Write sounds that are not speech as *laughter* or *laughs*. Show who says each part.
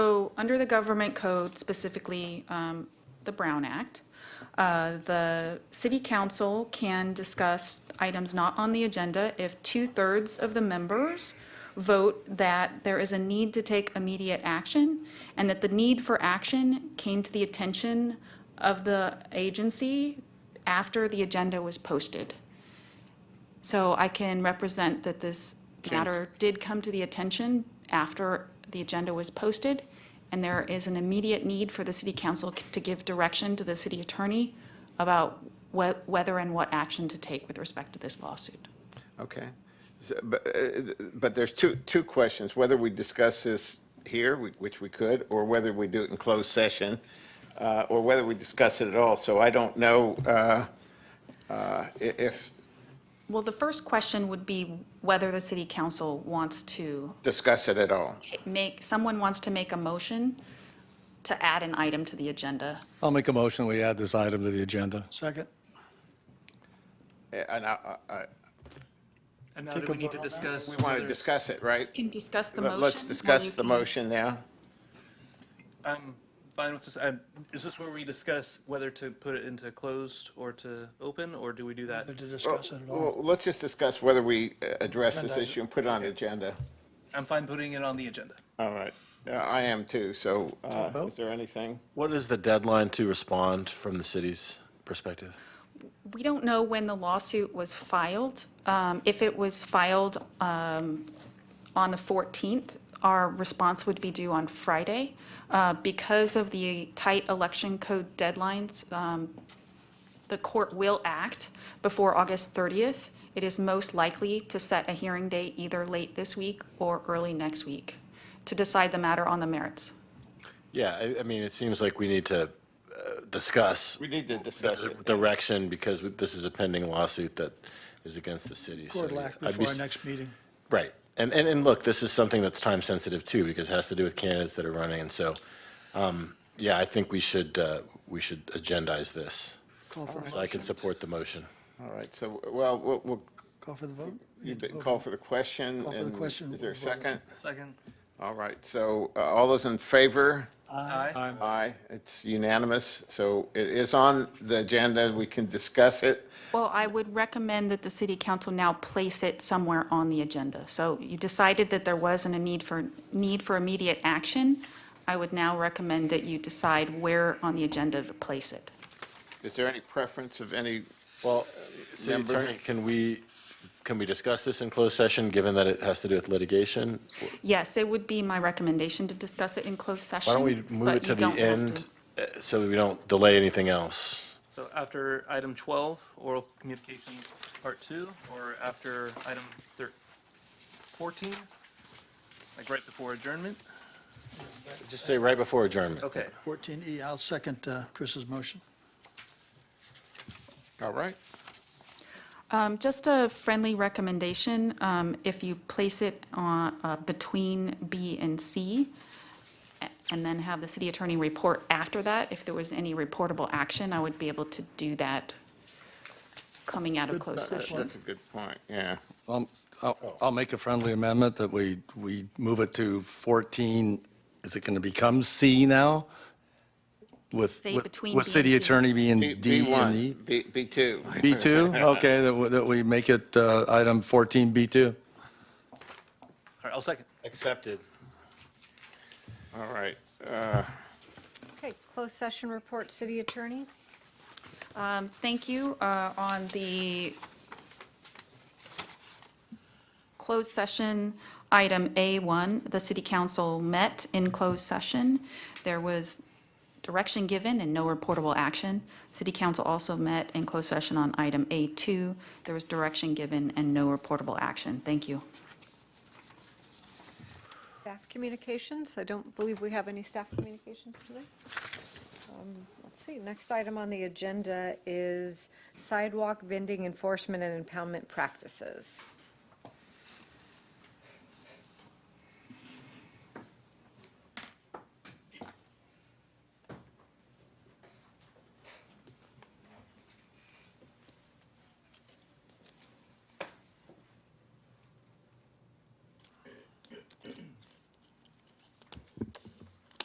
Speaker 1: under the government code, specifically um, the Brown Act, uh, the city council can discuss items not on the agenda if two-thirds of the members vote that there is a need to take immediate action and that the need for action came to the attention of the agency after the agenda was posted. So I can represent that this matter did come to the attention after the agenda was posted, and there is an immediate need for the city council c- to give direction to the city attorney about whe- whether and what action to take with respect to this lawsuit.
Speaker 2: Okay. So, But, uh, but there's two, two questions, whether we discuss this here, we- which we could, or whether we do it in closed session, uh, or whether we discuss it at all. So I don't know uh, uh, i- if
Speaker 1: Well, the first question would be whether the city council wants to
Speaker 2: discuss it at all.
Speaker 1: ta- make, someone wants to make a motion to add an item to the agenda.
Speaker 3: I'll make a motion, we add this item to the agenda. Second.
Speaker 2: And I, I- I-
Speaker 4: And now do we need to discuss?
Speaker 2: we want to
Speaker 4: whether-
Speaker 2: discuss it, right?
Speaker 1: Can discuss the motion.
Speaker 2: Let- Let's discuss the motion now.
Speaker 4: I'm fine with this. i is this where we discuss whether to put it into closed or to open, or do we do that?
Speaker 5: to discuss it at all.
Speaker 2: Well, Let's just discuss whether we uh, address this
Speaker 5: Agenda.
Speaker 2: issue and put it on the agenda.
Speaker 4: I'm fine putting it on the agenda.
Speaker 2: All right. Uh, I am too, so uh,
Speaker 5: vote?
Speaker 2: is there anything?
Speaker 6: What is the deadline to respond from the city's perspective?
Speaker 1: We don't know when the lawsuit was filed. Um, If it was filed um, on the 14th, our response would be due on Friday. Uh, Because of the tight election code deadlines, um, the court will act before August 30th. It is most likely to set a hearing date either late this week or early next week to decide the matter on the merits.
Speaker 6: Yeah, I, I mean, it seems like we need to uh, discuss
Speaker 2: We need to discuss it.
Speaker 6: direction because this is a pending lawsuit that is against the city. so
Speaker 5: Good luck
Speaker 6: I'd be
Speaker 5: before our
Speaker 6: s-
Speaker 5: next meeting.
Speaker 6: Right. And, and, and look, this is something that's time sensitive too, because it has to do with candidates that are running. And so, um, yeah, I think we should, uh, we should agendize this.
Speaker 5: Call for the
Speaker 6: So I can
Speaker 5: motion.
Speaker 6: support the motion.
Speaker 2: All right, so, well, we'll, we'll
Speaker 5: Call for the vote.
Speaker 2: You did call for the question.
Speaker 5: Call for the
Speaker 2: and
Speaker 5: question.
Speaker 2: Is there a second?
Speaker 4: Second.
Speaker 2: All right, so uh, all those in favor?
Speaker 4: Aye.
Speaker 2: Aye, it's unanimous. So it is on the agenda, we can discuss it.
Speaker 1: Well, I would recommend that the city council now place it somewhere on the agenda. So you decided that there wasn't a need for, need for immediate action. I would now recommend that you decide where on the agenda to place it.
Speaker 2: Is there any preference of any,
Speaker 6: Well, City
Speaker 2: member-
Speaker 6: Attorney, can we, can we discuss this in closed session, given that it has to do with litigation?
Speaker 1: Yes, it would be my recommendation to discuss it in closed session.
Speaker 6: Why don't we move
Speaker 1: but
Speaker 6: it to
Speaker 1: you
Speaker 6: the
Speaker 1: don't have
Speaker 6: end
Speaker 1: to.
Speaker 6: uh, so that we don't delay anything else?
Speaker 4: So after item 12, oral communications, part two, or after item thir- 14? Like right before adjournment?
Speaker 6: Just say right before adjournment.
Speaker 4: Okay.
Speaker 5: 14E, I'll second uh, Chris's motion.
Speaker 2: all right?
Speaker 1: Um, Just a friendly recommendation, um, if you place it on, uh, between B and C, a- and then have the city attorney report after that, if there was any reportable action, I would be able to do that coming out of closed
Speaker 2: That-
Speaker 1: session.
Speaker 2: That's a good point, yeah.
Speaker 3: I'll, Um, I'll make a friendly amendment that we, we move it to 14, is it going to become C now? With,
Speaker 1: Say
Speaker 3: with-
Speaker 1: between B
Speaker 3: with
Speaker 1: and
Speaker 3: city
Speaker 1: D.
Speaker 3: attorney being
Speaker 2: B-
Speaker 3: D and E?
Speaker 2: B1, B- B2.
Speaker 3: B2? Okay, that, we- that we make it uh, item 14, B2.
Speaker 4: All right, I'll second.
Speaker 6: Accepted.
Speaker 2: *laughs* All right. Uh,
Speaker 7: Okay, closed session report, city attorney.
Speaker 1: Um, Thank you. Uh, On the closed session, item A1, the city council met in closed session. There was direction given and no reportable action. City council also met in closed session on item A2. There was direction given and no reportable action. Thank you.
Speaker 7: Staff communications, I don't believe we have any staff communications today. Um, Let's see, next item on the agenda is sidewalk vending enforcement and impoundment practices.